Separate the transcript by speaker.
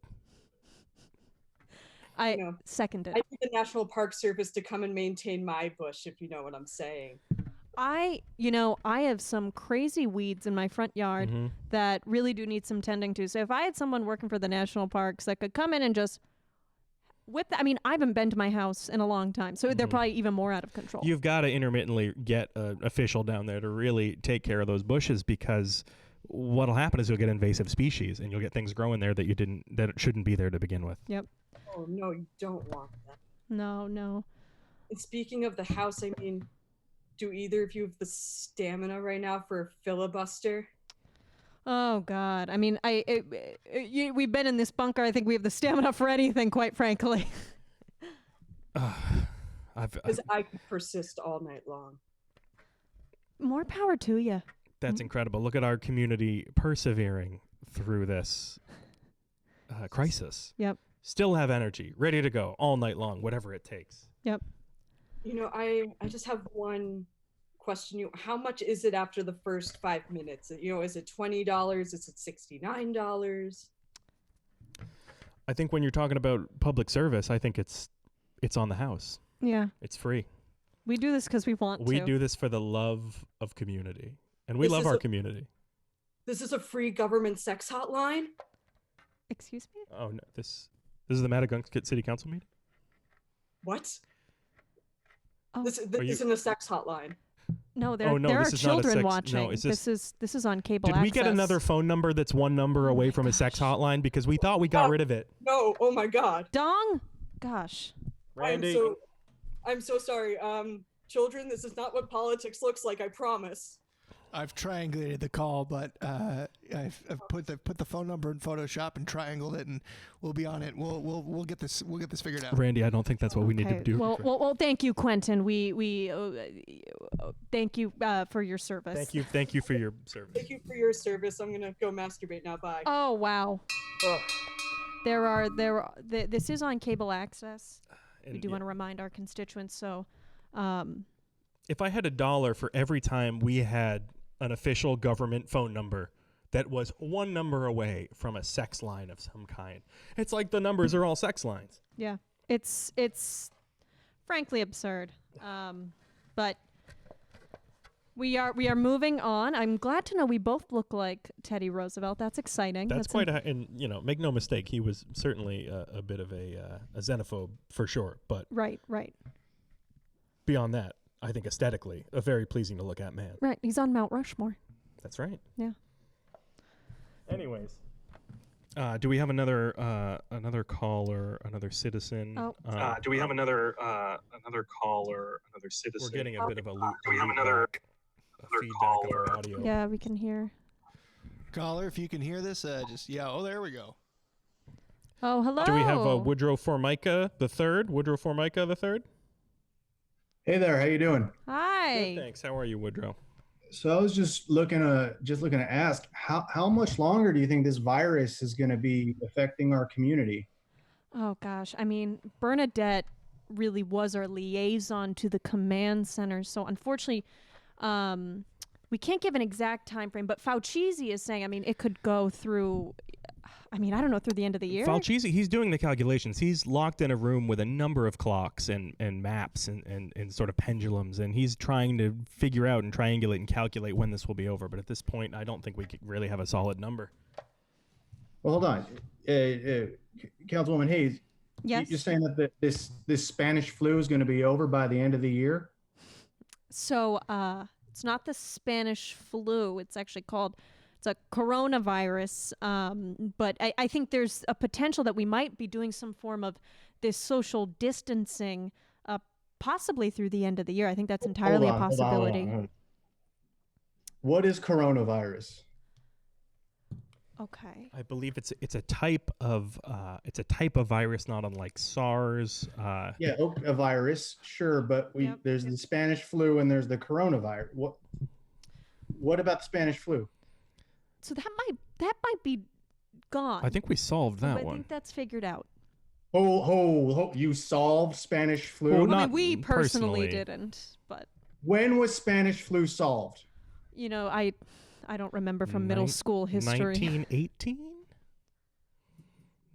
Speaker 1: I
Speaker 2: No.
Speaker 1: second it.
Speaker 2: I need the National Park Service to come and maintain my bush, if you know what I'm saying.
Speaker 1: I, you know, I have some crazy weeds in my front yard
Speaker 3: Mhm.
Speaker 1: that really do need some tending to. So if I had someone working for the national parks that could come in and just whip the, I mean, I haven't been to my house in a long time, so they're probably even more out of control.
Speaker 3: Mm-hmm. You've got to intermittently get an official down there to really take care of those bushes because what'll happen is you'll get invasive species and you'll get things growing there that you didn't that shouldn't be there to begin with.
Speaker 1: yep.
Speaker 2: Oh no, you don't want that.
Speaker 1: No, no.
Speaker 2: And speaking of the House, I mean, do either of you have the stamina right now for a filibuster?
Speaker 1: Oh God! I mean, I it, it, you, we've been in this bunker. I think we have the stamina for anything, quite frankly.
Speaker 3: I've,
Speaker 2: Because I could persist all night long.
Speaker 1: More power to you.
Speaker 3: that's incredible. Look at our community persevering through this uh, crisis.
Speaker 1: Yep.
Speaker 3: Still have energy, ready to go all night long, whatever it takes.
Speaker 1: Yep.
Speaker 2: You know, I I just have one question. You, how much is it after the first five minutes? You know, is it twenty dollars? Is it sixty nine dollars?
Speaker 3: I think when you're talking about public service, I think it's it's on the house.
Speaker 1: Yeah.
Speaker 3: It's free.
Speaker 1: We do this because we want
Speaker 3: We
Speaker 1: to.
Speaker 3: do this for the love of community, and we
Speaker 2: This
Speaker 3: love
Speaker 2: is
Speaker 3: our
Speaker 2: a-
Speaker 3: community.
Speaker 2: This is a free government sex hotline.
Speaker 1: Excuse me.
Speaker 3: Oh no! This this is the Madagunk City Council meeting.
Speaker 2: What?
Speaker 1: Oh.
Speaker 2: This, this
Speaker 3: Are you-
Speaker 2: isn't a sex hotline.
Speaker 1: No, there,
Speaker 3: Oh, no,
Speaker 1: there are
Speaker 3: this is not a
Speaker 1: children
Speaker 3: sex- no,
Speaker 1: watching.
Speaker 3: it's
Speaker 1: this
Speaker 3: just-
Speaker 1: is this is on cable.
Speaker 3: Did we get
Speaker 1: access.
Speaker 3: another phone number that's one number
Speaker 1: Oh
Speaker 3: away from a sex hotline? Because we thought we got rid of it.
Speaker 2: No. Oh my God.
Speaker 1: dong? Gosh,
Speaker 2: I'm so, I'm so sorry. Um, children, this is not what politics looks like. I promise.
Speaker 4: I've triangulated the call, but uh, I've, I've put the put the phone number in Photoshop and triangled it, and we'll be on it. We'll we'll we'll get this we'll get this figured out.
Speaker 3: Randy, I don't think that's what we need
Speaker 1: Okay,
Speaker 3: to do.
Speaker 1: Well, well, well, thank you, Quentin. We we uh, uh, thank you uh, for your service.
Speaker 3: thank you, thank you for your service.
Speaker 2: Thank you for your service. I'm gonna go masturbate now. Bye.
Speaker 1: Oh wow. There are there. Are, th- this is on cable access. we
Speaker 3: And
Speaker 1: do
Speaker 3: Uh, yeah.
Speaker 1: want to remind our constituents. So, um,
Speaker 3: If I had a dollar for every time we had an official government phone number that was one number away from a sex line of some kind, it's like the numbers are all sex lines.
Speaker 1: yeah, it's it's frankly absurd. Um, but we are we are moving on. I'm glad to know we both look like Teddy Roosevelt. That's exciting.
Speaker 3: That's,
Speaker 1: an-
Speaker 3: quite a, and you know, make no mistake, he was certainly a, a bit of a, uh, a xenophobe for sure. But
Speaker 1: right, right,
Speaker 3: beyond that, I think aesthetically, a very pleasing to look at man.
Speaker 1: right. He's on Mount Rushmore.
Speaker 3: That's right.
Speaker 1: Yeah.
Speaker 3: Anyways, uh, do we have another uh, another caller, another citizen?
Speaker 1: Oh.
Speaker 3: Uh,
Speaker 5: Uh, do we have another uh, another caller, another citizen?
Speaker 3: we're getting a bit of a loop.
Speaker 5: Uh, do we have another-
Speaker 3: loopback, a
Speaker 5: another
Speaker 3: feedback of
Speaker 5: caller?
Speaker 3: our audio?
Speaker 1: Yeah, we can hear.
Speaker 4: Caller, if you can hear this, uh, just yeah. Oh, there we go.
Speaker 1: Oh, hello.
Speaker 3: Do we have uh, Woodrow Formica the third? Woodrow Formica the third.
Speaker 6: Hey there, how you doing?
Speaker 1: Hi.
Speaker 3: Thanks. How are you, Woodrow?
Speaker 6: So I was just looking to just looking to ask how how much longer do you think this virus is going to be affecting our community?
Speaker 1: Oh gosh, I mean Bernadette really was our liaison to the command center, so unfortunately, um, we can't give an exact time frame. But Fauci is saying, I mean, it could go through. I mean, I don't know through the end of the year.
Speaker 3: Falchisi, he's doing the calculations. He's locked in a room with a number of clocks and, and maps and, and, and sort of pendulums, and he's trying to figure out and triangulate and calculate when this will be over. But at this point, I don't think we could really have a solid number.
Speaker 6: Well, hold on, uh, uh, Councilwoman Hayes, you-
Speaker 1: yes.
Speaker 6: you're saying that the, this this Spanish flu is going to be over by the end of the year?
Speaker 1: So uh, it's not the Spanish flu. It's actually called it's a coronavirus. Um, but I, I think there's a potential that we might be doing some form of this social distancing, uh, possibly through the end of the year. I think that's entirely
Speaker 6: Hold
Speaker 1: a
Speaker 6: on, hold on, hold on,
Speaker 1: possibility.
Speaker 6: hold on. What is coronavirus?
Speaker 1: Okay.
Speaker 3: I believe it's it's a type of uh, it's a type of virus, not unlike SARS. Uh,
Speaker 6: Yeah, oh, a virus, sure, but we
Speaker 1: Yep,
Speaker 6: there's the Spanish flu and there's the coronavirus. What what about the Spanish flu?
Speaker 1: So that might that might be gone.
Speaker 3: I think we solved
Speaker 1: Uh, I
Speaker 3: that
Speaker 1: think
Speaker 3: one.
Speaker 1: that's figured out.
Speaker 6: Oh, oh, oh you solved Spanish flu.
Speaker 3: Well,
Speaker 1: I
Speaker 3: not
Speaker 1: mean, we personally,
Speaker 3: personally.
Speaker 1: didn't, but
Speaker 6: When was Spanish flu solved?
Speaker 1: you know, I I don't remember from middle school history.
Speaker 3: 1918.